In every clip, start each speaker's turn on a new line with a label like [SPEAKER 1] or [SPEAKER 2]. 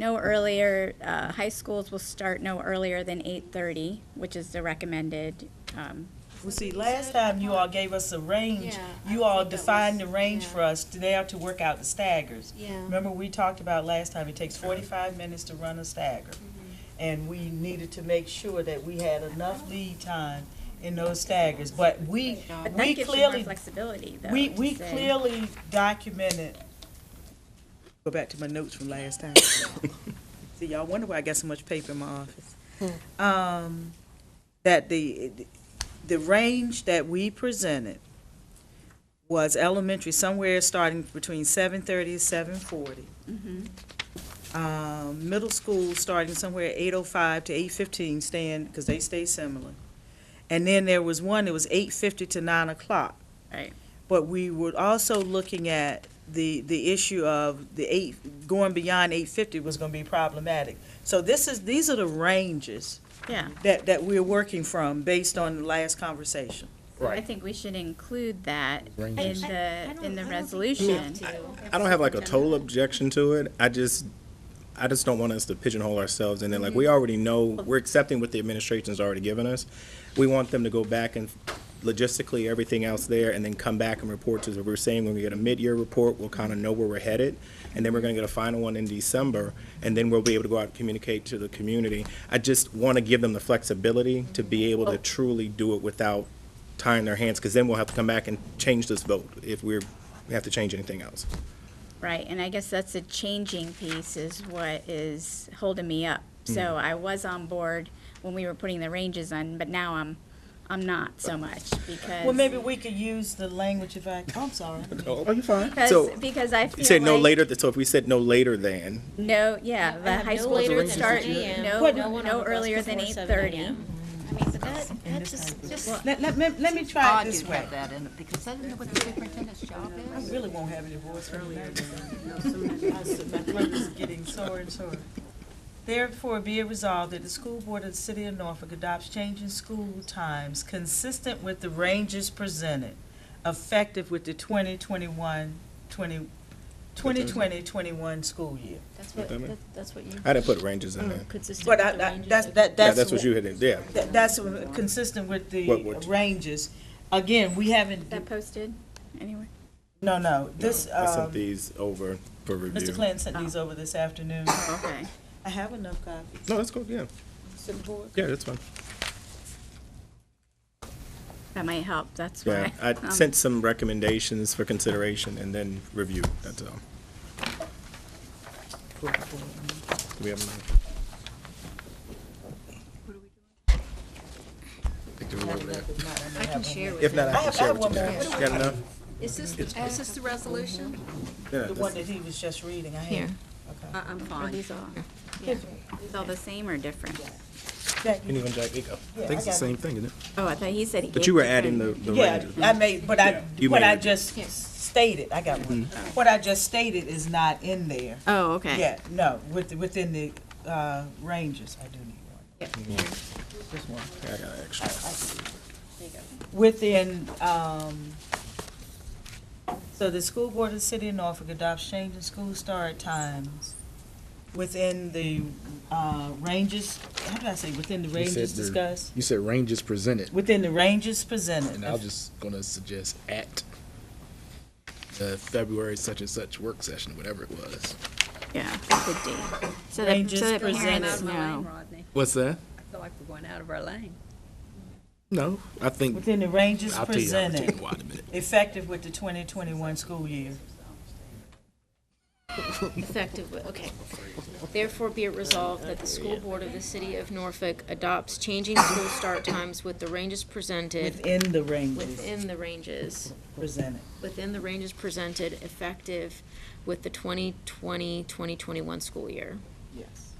[SPEAKER 1] No earlier, uh, high schools will start no earlier than eight-thirty, which is the recommended, um,
[SPEAKER 2] Well, see, last time you all gave us a range,
[SPEAKER 3] Yeah,
[SPEAKER 2] you
[SPEAKER 3] I
[SPEAKER 2] all
[SPEAKER 3] think that
[SPEAKER 2] defined the
[SPEAKER 3] was-
[SPEAKER 2] range
[SPEAKER 3] yeah.
[SPEAKER 2] for us to there to work out the staggers.
[SPEAKER 3] Yeah.
[SPEAKER 2] Remember, we talked about last time, it takes forty-five minutes to run a stagger.
[SPEAKER 3] Mm-hmm.
[SPEAKER 2] And we needed to make sure that we had enough lead time in those staggers, but we,
[SPEAKER 1] but that
[SPEAKER 2] we
[SPEAKER 1] gives you more
[SPEAKER 2] clearly,
[SPEAKER 1] flexibility, though.
[SPEAKER 2] we,
[SPEAKER 1] to
[SPEAKER 2] we
[SPEAKER 1] say-
[SPEAKER 2] clearly documented. Go back to my notes from last time. See, y'all wonder why I got so much paper in my office. Um, that the, the range that we presented was elementary, somewhere starting between seven thirty and seven forty. Um, middle school starting somewhere eight oh five to eight fifteen, staying, because they stay similar. And then there was one, that was eight fifty to nine o'clock.
[SPEAKER 1] Right.
[SPEAKER 2] But we were also looking at the, the issue of the eight, going beyond eight fifty was gonna be problematic. So this is, these are the ranges
[SPEAKER 1] Yeah,
[SPEAKER 2] that, that we're working from based on the last conversation.
[SPEAKER 1] I
[SPEAKER 4] Right.
[SPEAKER 1] think we should include that in
[SPEAKER 4] Ranges.
[SPEAKER 1] the, in the
[SPEAKER 3] Yeah.
[SPEAKER 1] resolution.
[SPEAKER 4] I don't have like a total objection to it. I just, I just don't want us to pigeonhole ourselves in there. Like, we already know, we're accepting what the administration's already given us. We want them to go back and logistically, everything else there, and then come back and report to us. We're saying when we get a mid-year report, we'll kind of know where we're headed. And then we're going to get a final one in December, and then we'll be able to go out and communicate to the community. I just want to give them the flexibility to be able to truly do it without tying their hands, because then we'll have to come back and change this vote if we're, we have to change anything else.
[SPEAKER 1] Right, and I guess that's the changing piece is what is holding me up.
[SPEAKER 4] Mm.
[SPEAKER 1] So I was on board when we were putting the ranges on, but now I'm, I'm not so much because.
[SPEAKER 2] Well, maybe we could use the language if I, I'm sorry.
[SPEAKER 4] Oh, you're fine.
[SPEAKER 1] Because,
[SPEAKER 4] So,
[SPEAKER 1] because I feel like.
[SPEAKER 4] you said no later, th- so if we said no later than,
[SPEAKER 1] No, yeah, the high
[SPEAKER 3] no
[SPEAKER 1] school
[SPEAKER 3] later
[SPEAKER 1] would
[SPEAKER 3] than
[SPEAKER 1] start
[SPEAKER 3] 7 a.m.,
[SPEAKER 1] no,
[SPEAKER 3] no one on
[SPEAKER 1] no
[SPEAKER 3] the bus
[SPEAKER 1] earlier than eight
[SPEAKER 3] before 7
[SPEAKER 1] thirty.
[SPEAKER 3] a.m.
[SPEAKER 5] I mean, so that, that just, just
[SPEAKER 2] Let, let, let let me try it
[SPEAKER 5] odd
[SPEAKER 2] this
[SPEAKER 5] you
[SPEAKER 2] way.
[SPEAKER 5] have that in it, because I don't know what the superintendent's job
[SPEAKER 2] I
[SPEAKER 5] is.
[SPEAKER 2] really won't have any voice earlier. My throat is getting sore and sore. Therefore, be it resolved that the school board of the city of Norfolk adopts changing school times consistent with the ranges presented, effective with the 2021 20 2020-21 school year.
[SPEAKER 3] That's
[SPEAKER 4] What
[SPEAKER 3] what,
[SPEAKER 4] that mean?
[SPEAKER 3] that- that's what you.
[SPEAKER 4] I didn't put ranges
[SPEAKER 3] Mm.
[SPEAKER 4] in there.
[SPEAKER 3] Consistent
[SPEAKER 2] But
[SPEAKER 3] with
[SPEAKER 2] I,
[SPEAKER 3] the
[SPEAKER 2] I-
[SPEAKER 3] ranges
[SPEAKER 2] that's,
[SPEAKER 3] of-
[SPEAKER 2] that,
[SPEAKER 4] Yeah,
[SPEAKER 2] that's.
[SPEAKER 4] that's what
[SPEAKER 2] wh-
[SPEAKER 4] you had, in- yeah.
[SPEAKER 2] that- That's wh- consistent with
[SPEAKER 4] What
[SPEAKER 2] the
[SPEAKER 4] would-
[SPEAKER 2] ranges. Again, we haven't,
[SPEAKER 1] That posted anywhere?
[SPEAKER 2] no, no, this,
[SPEAKER 4] I sent
[SPEAKER 2] um,
[SPEAKER 4] these over for
[SPEAKER 2] Mr.
[SPEAKER 4] review.
[SPEAKER 2] Clinton sent these over this afternoon.
[SPEAKER 1] Okay.
[SPEAKER 2] I have enough copies.
[SPEAKER 4] No, that's cool, yeah,
[SPEAKER 2] So the board-
[SPEAKER 4] yeah, that's fine.
[SPEAKER 1] That might help, that's
[SPEAKER 4] Yeah,
[SPEAKER 1] why.
[SPEAKER 4] I
[SPEAKER 1] um,
[SPEAKER 4] sent some recommendations for consideration and then review, that's all. Do we have? any-
[SPEAKER 5] I can share with
[SPEAKER 4] If not, I can
[SPEAKER 2] have- I
[SPEAKER 4] share
[SPEAKER 2] have
[SPEAKER 4] what you
[SPEAKER 2] one
[SPEAKER 4] got. Got enough?
[SPEAKER 5] Is this, is this the resolution?
[SPEAKER 4] Yeah,
[SPEAKER 2] The one
[SPEAKER 4] that's-
[SPEAKER 2] that he was just reading, I
[SPEAKER 5] Here.
[SPEAKER 2] have.
[SPEAKER 1] Uh,
[SPEAKER 5] I, I'm
[SPEAKER 1] Are
[SPEAKER 5] fine.
[SPEAKER 1] these all, these all the same or different?
[SPEAKER 2] That-
[SPEAKER 4] Anyone, Jack, you go. I think it's the same thing, isn't it?
[SPEAKER 1] Oh, I thought he said he.
[SPEAKER 4] But you were
[SPEAKER 1] gave
[SPEAKER 4] adding the,
[SPEAKER 1] different-
[SPEAKER 4] the
[SPEAKER 2] Yeah,
[SPEAKER 4] ranges.
[SPEAKER 2] I made, but I,
[SPEAKER 4] You
[SPEAKER 2] what
[SPEAKER 4] made
[SPEAKER 2] I
[SPEAKER 4] it. Mm-hmm.
[SPEAKER 2] just stated, I got one. What I just stated is not in there.
[SPEAKER 1] Oh, okay.
[SPEAKER 2] Yeah, no, with, within the, uh, ranges, I do need one.
[SPEAKER 4] Yeah, I got an extra.
[SPEAKER 2] Within, um, so the school board of the city of Norfolk adopts change in school start times within the, uh, ranges, how did I say, within the ranges
[SPEAKER 6] said the-
[SPEAKER 2] discussed?
[SPEAKER 6] You said ranges presented,
[SPEAKER 2] Within the ranges presented.
[SPEAKER 6] and I was just gonna suggest at the February such and such work session, whatever it was.
[SPEAKER 1] Yeah, the date. So that,
[SPEAKER 2] Ranges
[SPEAKER 1] so that
[SPEAKER 2] presented.
[SPEAKER 1] parents know.
[SPEAKER 5] Rodney.
[SPEAKER 6] What's that?
[SPEAKER 5] I feel like we're going out of our lane.
[SPEAKER 6] No, I think,
[SPEAKER 2] Within the ranges
[SPEAKER 6] I'll tell you, I'll tell you
[SPEAKER 2] presented,
[SPEAKER 6] why in a minute.
[SPEAKER 2] effective with the 2021 school year.
[SPEAKER 3] Effective, with- okay. Therefore be it resolved that the school board of the city of Norfolk adopts changing school start times with the ranges presented
[SPEAKER 2] Within the ranges
[SPEAKER 3] within the ranges,
[SPEAKER 2] presented.
[SPEAKER 3] within the ranges presented, effective with the 2020-2021 school year.
[SPEAKER 2] Yes.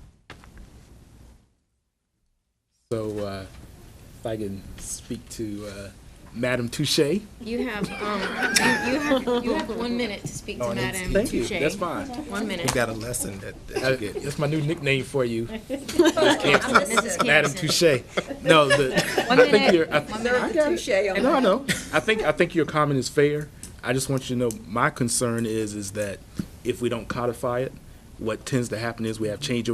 [SPEAKER 6] So, uh, if I can speak to, uh, Madam Touche.
[SPEAKER 3] You have, um, you, you have, you have one minute to speak to Madam
[SPEAKER 6] Oh, Thank you,
[SPEAKER 3] Touche.
[SPEAKER 6] that's fine.
[SPEAKER 3] One minute.
[SPEAKER 4] Got a lesson that,
[SPEAKER 6] Uh,
[SPEAKER 4] that you get.
[SPEAKER 6] That's my new nickname for you,
[SPEAKER 3] Mrs.
[SPEAKER 6] Madam
[SPEAKER 3] Campson.
[SPEAKER 6] Touche. No, the, I think you're, I think, I got it. No, no. I think I think your comment is fair. I just want you to know my concern is is that if we don't codify it, what tends to happen is we have changeover